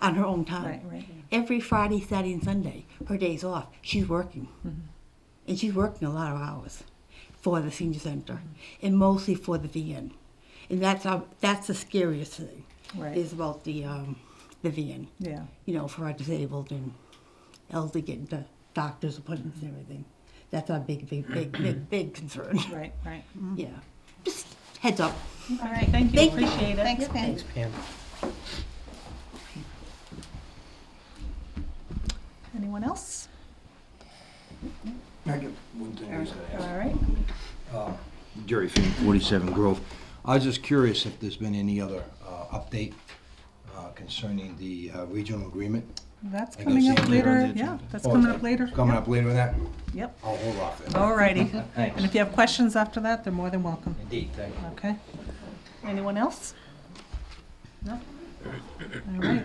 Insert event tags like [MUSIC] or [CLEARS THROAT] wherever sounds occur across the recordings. on her own time. Right, right. Every Friday, Saturday, and Sunday, her days off, she's working. Mm-hmm. And she's working a lot of hours for the senior center and mostly for the VN. And that's our, that's the scariest thing Right. is about the um, the VN. Yeah. You know, for our disabled and elderly getting to doctor's appointments and everything. That's our big, big, big, big, big concern. Right, Mm-hmm. right. Yeah. Just heads up. Mm-hmm. All right, thank you, Thank you. appreciate it. Thanks, Pam. Pam. Anyone else? I got one thing I was gonna ask. All right. Jerry Finn, 47 Grove. I was just curious if there's been any other uh, update uh, concerning the uh, regional agreement? That's I guess coming it's up later on later, the yeah, agenda. that's Oh, coming it's up later. Coming Yep, up later on that? Yep, I'll hold off then. all righty. [LAUGHS] Thanks. And if you have questions after that, they're more than welcome, Indeed, thank you. okay? Anyone else? No? All right,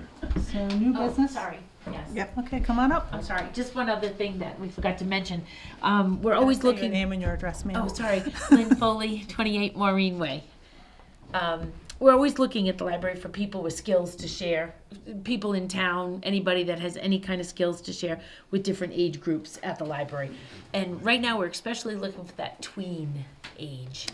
so new Oh, business? Sorry, yes. Yep, okay, come on up. I'm sorry, just one other thing that we forgot to mention. Um, we're always Say your looking. name and your address, ma'am. Oh, sorry, Lynn Foley, 28 Maureen Way. Um, we're always looking at the library for people with skills to share, people in town, anybody that has any kind of skills to share with different age groups at the library. And right now, we're especially looking for that tween age.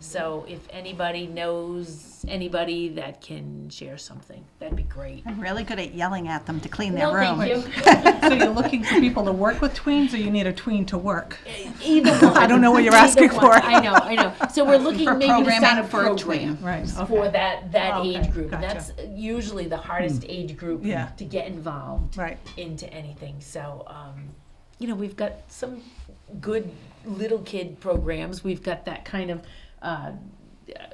So if anybody knows anybody that can share something, that'd be great. I'm really good at yelling at them to clean their No, room. thank you. So you're looking for people to work with tweens, or you need a tween to work? Either [LAUGHS] one. I don't know what you're asking Either one. for. I know, I [LAUGHS] know. So we're looking For maybe to sign programming up for a tween. Right, for okay, Oh, that that Okay, age group. gotcha. Hmm. That's usually the hardest age group Yeah. to get involved right. into anything. So, um, you know, we've got some good little kid programs. We've got that kind of. Uh,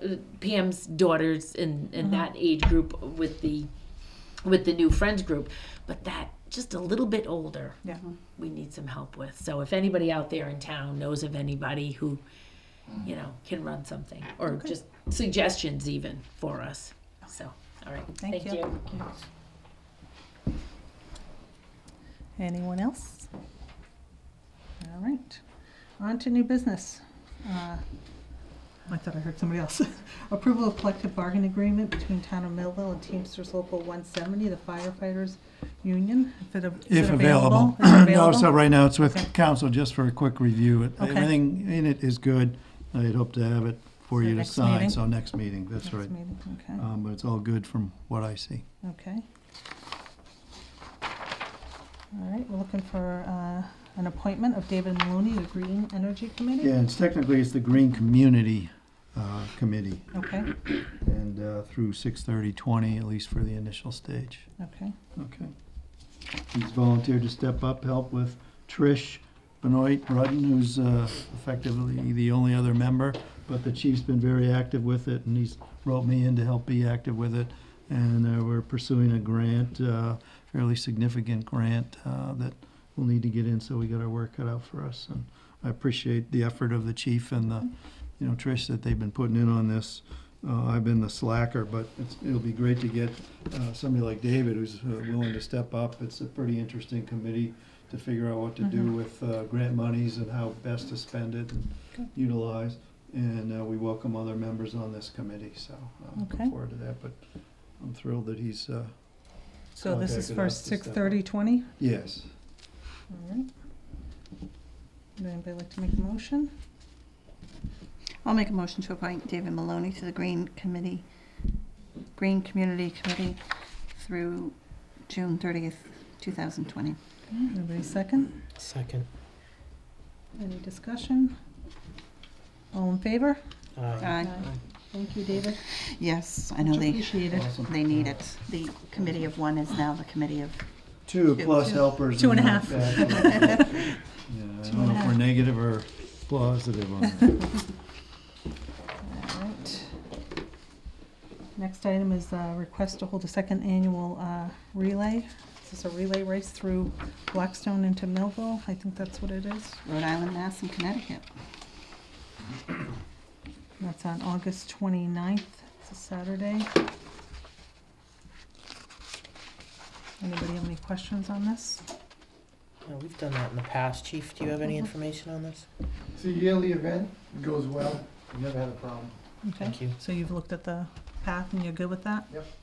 uh, Pam's daughters in, Mm-hmm. in that age group with the with the new friends group, but that just a little bit older Yeah. we need some help with. So if anybody out there in town knows of anybody who, you know, can run something or just suggestions even for us. So, all right. Thank you. Anyone else? All right, on to new business. Uh, I thought I heard somebody else. [LAUGHS] Approval of collective bargaining agreement between Town of Millville and Teamsters Local 170, the firefighters union, if it av- is If it available. Is it [CLEARS THROAT] No, so available? right now it's with Okay. council just for a quick review. It- Okay. Everything in it is good. I'd hope to have it for So you to next sign, meeting? so next meeting, that's Next right. meeting, Okay. Um, But it's all good from what I see. Okay. All right, we're looking for uh, an appointment of David Maloney, the Green Energy Committee? Yeah, and it's technically it's the Green Community uh, Committee, Okay, and uh, through 6/30/20, at least for the initial stage. okay, Okay. He's volunteered to step up, help with Trish Benoit Rudden, who's uh, effectively the only other member, but the chief's been very active with it, and he's wrote me in to help be active with it. And uh, we're pursuing a grant, uh, fairly significant grant, uh, that we'll need to get in, so we got our work cut out for us. And I appreciate the effort of the chief and the, you know, Trish, that they've been putting in on this. Uh, I've been the slacker, but it's, it'll be great to get uh, somebody like David who's uh, willing to step up. It's a pretty interesting committee to figure out what to Mm-hmm. do with uh, grant monies and how best to spend it and utilize. And uh, we welcome other members on this committee, so I'm Okay. looking forward to that. But I'm thrilled that he's, uh, so this is Contacted for us to step up. 6:30, 20? yes. All right. Would anybody like to make a motion? I'll make a motion to appoint David Maloney to the Green Committee, Green Community Committee through June 30th, 2020. Anybody second? Second. Any discussion? All in favor? Aye. Aye. Thank you, David. Yes, I know Much they, appreciated. they need it. The committee of one is now the committee of, Two plus helpers. Two and a in half. [LAUGHS] the back. Yeah, I don't know if we're negative or positive on that. All right. Next item is uh, request to hold a second annual uh, relay. This is a relay race through Blackstone into Millville. I think that's what it is. Rhode Island, Mass, and Connecticut. That's on August 29th. It's a Saturday. Anybody have any questions on this? Yeah, we've done that in the past. Chief, do you have any Mm-hmm. information on this? It's a yearly event, It goes well, We never had a problem. Okay. Thank you. So you've looked at the path and you're good with that? Yep.